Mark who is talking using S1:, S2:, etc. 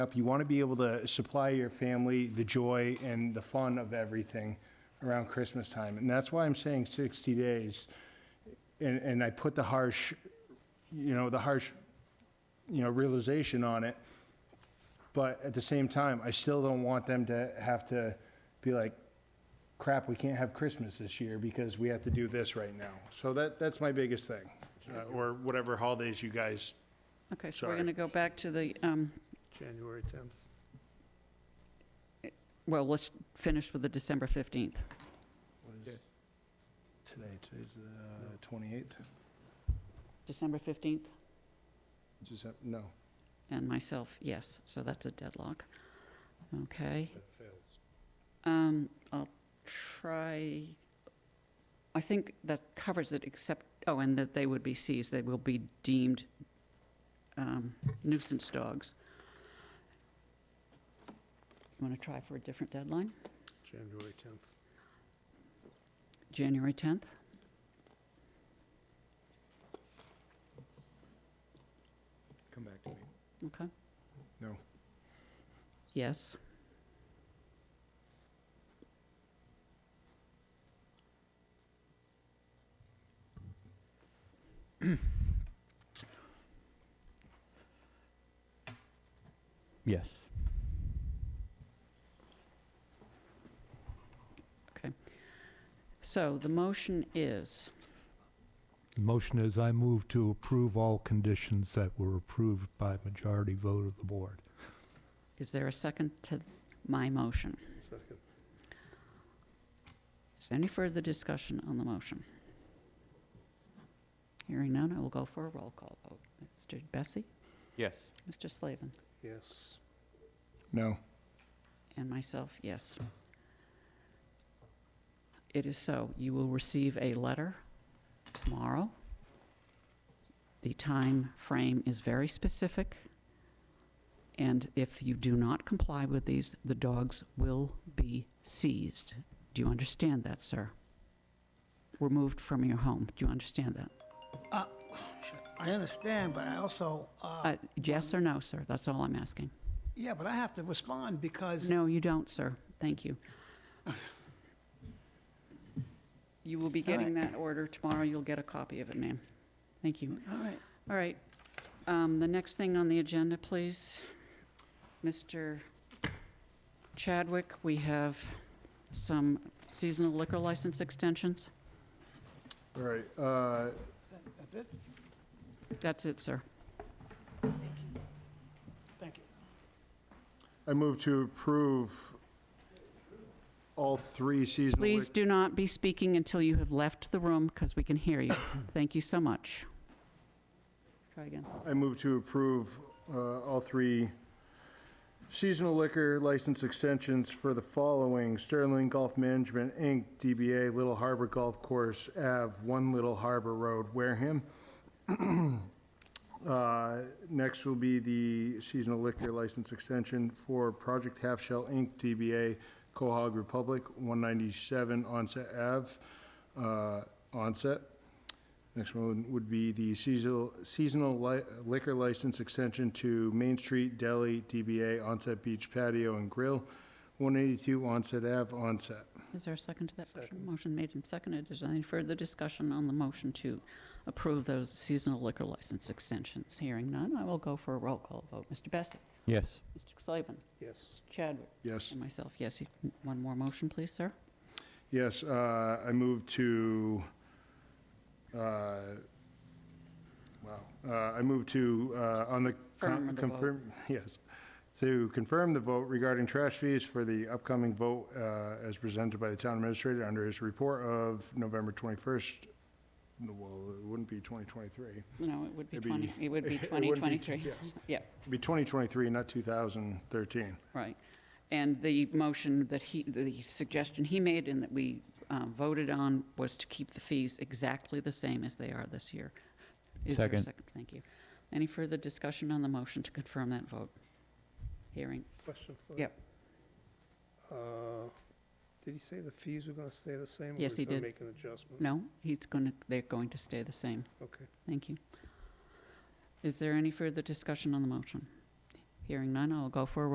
S1: up. You want to be able to supply your family the joy and the fun of everything around Christmas time. And that's why I'm saying 60 days. And, and I put the harsh, you know, the harsh, you know, realization on it. But at the same time, I still don't want them to have to be like, crap, we can't have Christmas this year because we have to do this right now. So that, that's my biggest thing, uh, or whatever holidays you guys,
S2: Okay, so we're
S1: Sorry.
S2: going to go back to the, um,
S3: January 10th.
S2: well, let's finish with the December 15th.
S1: what is today, today's the 28th?
S2: December 15th?
S1: Is that- No,
S2: And myself, yes, so that's a deadlock. Okay. Um, I'll try, I think that covers it except, oh, and that they would be seized, they will be deemed um, nuisance dogs. You want to try for a different deadline?
S3: January 10th.
S2: January 10th?
S1: come back to me.
S2: Okay.
S1: No.
S2: Yes.
S4: Yes.
S2: So the motion is,
S5: Motion is I move to approve all conditions that were approved by majority vote of the board.
S2: is there a second to my motion?
S3: Second.
S2: Is there any further discussion on the motion? Hearing none, I will go for a roll call vote. Mr. Bessie?
S4: Yes.
S2: Mr. Slavin?
S3: Yes.
S1: No.
S2: And myself, yes. It is so. You will receive a letter tomorrow. The time frame is very specific, and if you do not comply with these, the dogs will be seized. Do you understand that, sir? Removed from your home. Do you understand that?
S6: I understand, but I also, uh,
S2: Uh, Yes or no, sir? That's all I'm asking.
S6: yeah, but I have to respond because,
S2: No, you don't, sir. Thank you. You will be
S6: All right.
S2: getting that order tomorrow. You'll get a copy of it, ma'am. Thank you.
S6: all right,
S2: All right. Um, The next thing on the agenda, please. Mr. Chadwick, we have some seasonal liquor license extensions.
S1: All right, uh,
S6: that's it,
S2: That's it, sir.
S6: thank you.
S1: I move to approve all three seasonal.
S2: Please do not be speaking until you have left the room, because we can hear you. Thank you so much. Try again.
S1: lic- I move to approve uh, all three seasonal liquor license extensions for the following: Sterling Golf Management, Inc., DBA Little Harbor Golf Course, Ave., 1 Little Harbor Road, Wareham. Uh, Next will be the seasonal liquor license extension for Project Half Shell, Inc., DBA Cohog Republic, 197 Onset Ave., uh, Onset. Next one would be the seasonal, seasonal li- liquor license extension to Main Street Deli, DBA Onset Beach Patio and Grill, 182 Onset Ave, Onset.
S2: Is there a second to that motion?
S3: Second.
S2: Motion made and seconded. Is there any further discussion on the motion to approve those seasonal liquor license extensions? Hearing none, I will go for a roll call vote. Mr. Bessie?
S4: Yes.
S2: Mr. Slavin?
S3: Yes.
S2: Chadwick?
S1: Yes,
S2: And myself, yes. You- One more motion, please, sir.
S1: yes, uh, I move to, uh, wow, Uh, I move to, uh, on the.
S2: Confirm
S1: con-
S2: the vote.
S1: confirm- Yes, to confirm the vote regarding trash fees for the upcoming vote uh, as presented by the town administrator under his report of November 21st. No, Well, it wouldn't be 2023.
S2: No, it would be
S1: It'd be-
S2: 20, it would be
S1: it wouldn't be-
S2: 2023.
S1: yes.
S2: Yeah,
S1: It'd be 2023, not 2013.
S2: right. And the motion that he, the suggestion he made and that we uh, voted on was to keep the fees exactly the same as they are this year. Is there a
S4: Second.
S2: second? Thank you. Any further discussion on the motion to confirm that vote? Hearing,
S3: Question for you.
S2: Yep.
S3: Uh, Did he say the fees were going to stay the same? or
S2: Yes,
S3: we're
S2: he
S3: gonna
S2: did.
S3: Make an adjustment?
S2: no, he's going to, they're going to stay the same.
S3: Okay.
S2: Thank you. Is there any further discussion on the motion? Hearing none, I'll go for a